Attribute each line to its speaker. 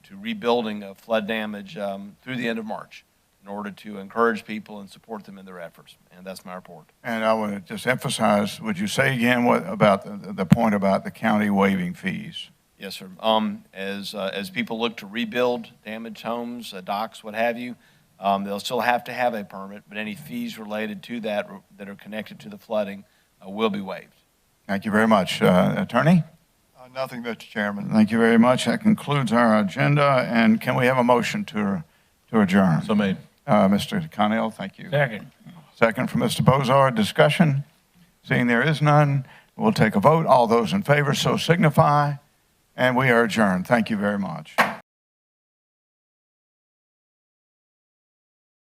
Speaker 1: to rebuilding of flood damage um, through the end of March in order to encourage people and support them in their efforts. And that's my report.
Speaker 2: And I would just emphasize, would you say again what, about the, the point about the county waiving fees?
Speaker 1: Yes, sir. Um, as, uh, as people look to rebuild damaged homes, uh, docks, what have you, um, they'll still have to have a permit, but any fees related to that r- that are connected to the flooding uh, will be waived.
Speaker 2: Thank you very much. Uh, Attorney?
Speaker 3: Uh, Nothing, Mr. Chairman.
Speaker 2: Thank you very much. That concludes our agenda, and can we have a motion to, to adjourn?
Speaker 4: So made.
Speaker 2: Uh, Mr. Connell, thank you.
Speaker 4: Second.
Speaker 2: Second from Mr. Bozard, discussion. Seeing there is none, we'll take a vote. All those in favor, so signify, and we are adjourned. Thank you very much.